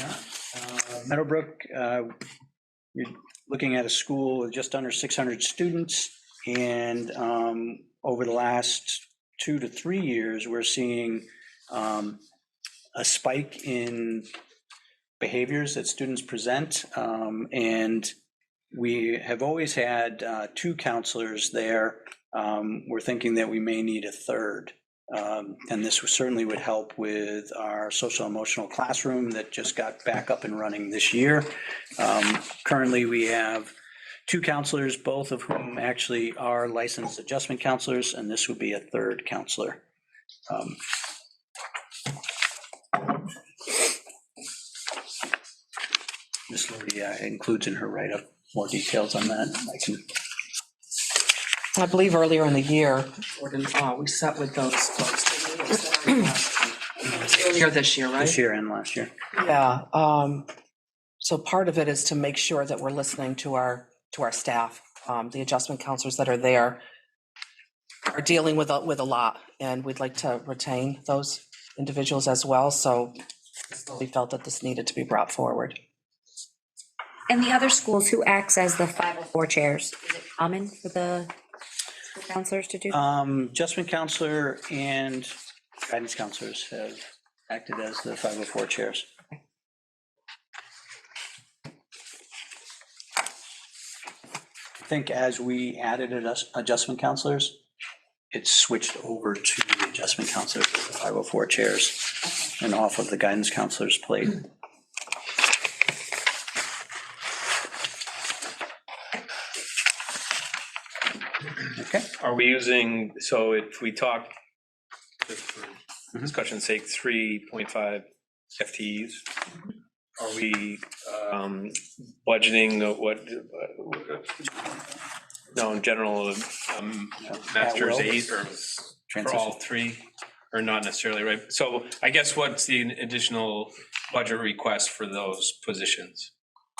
Uh, Um, Meadowbrook, uh, you're looking at a school with just under 600 students, and um, over the last two to three years, we're seeing um, a spike in behaviors that students present, um, and we have always had uh, two counselors there. Um, We're thinking that we may need a third. Um, And this certainly would help with our social emotional classroom that just got back up and running this year. Um, Currently, we have two counselors, both of whom actually are licensed adjustment counselors, and this would be a third counselor. Um, Ms. Lodi uh, includes in her write-up more details on that. I can, I believe earlier in the year, Gordon, uh, we sat with those folks. Earlier this year, this right? year and last year. Yeah. um, So part of it is to make sure that we're listening to our, to our staff. Um, The adjustment counselors that are there are dealing with, a- with a lot, and we'd like to retain those individuals as well. So we felt that this needed to be brought forward. And the other schools who acts as the 504 chairs, is it common for the school counselors to do? Um, Adjustment counselor and guidance counselors have acted as the 504 chairs. I think as we added adjust- adjustment counselors, it switched over to the adjustment counselors, as the 504 chairs, and off of the guidance counselors plate. Okay. Are we using, so if we talk, just for discussion's sake, 3.5 FTEs? Are we um, budgeting the what? No, in general, um, master's At will. eight or for all three, or not necessarily, right? So I guess what's the additional budget request for those positions?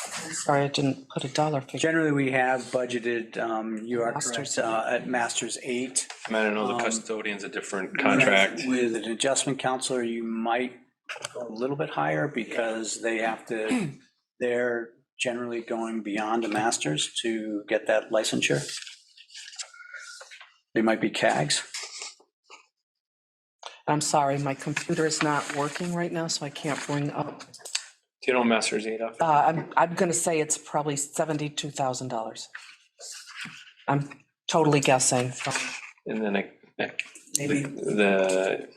Sorry, I didn't put a dollar figure. Generally, we have budgeted, um, you are correct, Masters. uh, at Masters 8. I mean, I don't know Um, the custodian's a different contract. With an adjustment counselor, you might go a little bit higher because they have to, they're generally going beyond a master's to get that licensure. They might be CAGs. I'm sorry, my computer is not working right now, so I can't bring up Do you know master's eight off? Uh, I'm, I'm gonna say it's probably seventy-two thousand dollars. I'm totally guessing. And then I, I Maybe, the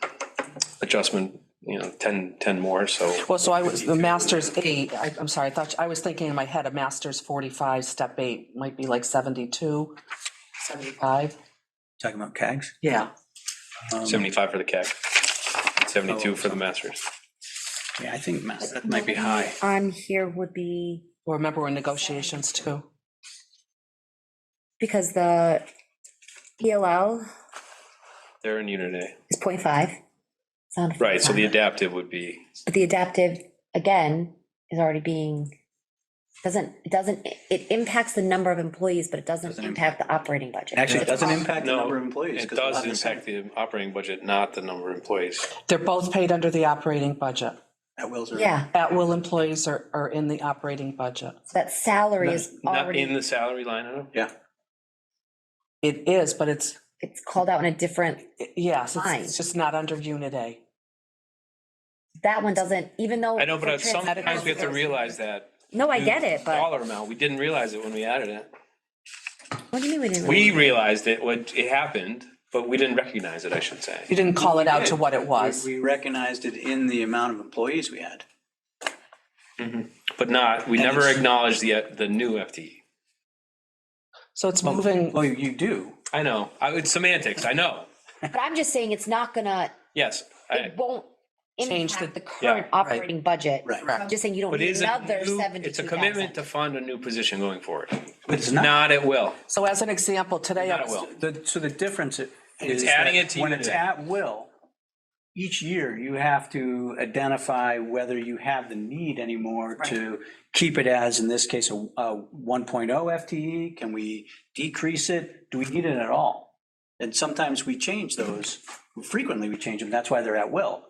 adjustment, you know, 10, 10 more, so. well, so I was, the master's eight, I, I'm sorry, I thought, I was thinking in my head, a master's forty-five, step eight might be like seventy-two, seventy-five. Talking about CAGs? Yeah, Um, 75 for the CAC, 72 for the masters. Yeah, I think mas- that might be high. On here would be, Well, remember we're in negotiations too. because the ELL They're in unit A. is 0.5. It's not a Right, so the 0.5. adaptive would be, But the adaptive, again, is already being, doesn't, it doesn't, it impacts the number of employees, but it doesn't Doesn't impact the operating budget. Actually, it It's doesn't all- impact the No, number of employees. it 'cause we'll does have the same- impact the operating budget, not the number of employees. They're both paid under the operating budget. At wills or. Yeah, At-will employees are, are in the operating budget. so that salary Not is not in already, the salary line item? Yeah. It is, but it's, it's called out in a different yes, it's- Fine. it's just not under unit A. That one doesn't, even though. I know, but it's a trans- sometimes we have to realize that. No, I get it, but Dollar amount, we didn't realize it when we added it. what do you mean we didn't? We realized it when it happened, but we didn't recognize it, I should say. You didn't call it out to what it was. We recognized it in the amount of employees we had. But not, we And never it's- acknowledged the, the new E. FTE. So it's moving, Well, Oh, you do. I know, I, it's semantics, I know. But I'm just saying it's not gonna, Yes, I, it won't Change impact the- the current Yeah, right. operating budget. Right. I'm just saying you don't but it need is a another new, seventy-two it's a commitment to thousand. fund a new position going forward. But it's not. Not at will, so as an example, today, I not at was- will. The, so the difference is. It's adding that it to When unit it's A. at will, each year you have to identify whether you have the need anymore to keep it as, in this case, a, a 1.0 FTE. E. Can we decrease it? Do we need it at all? And sometimes we change those, frequently we change them, that's why they're at will.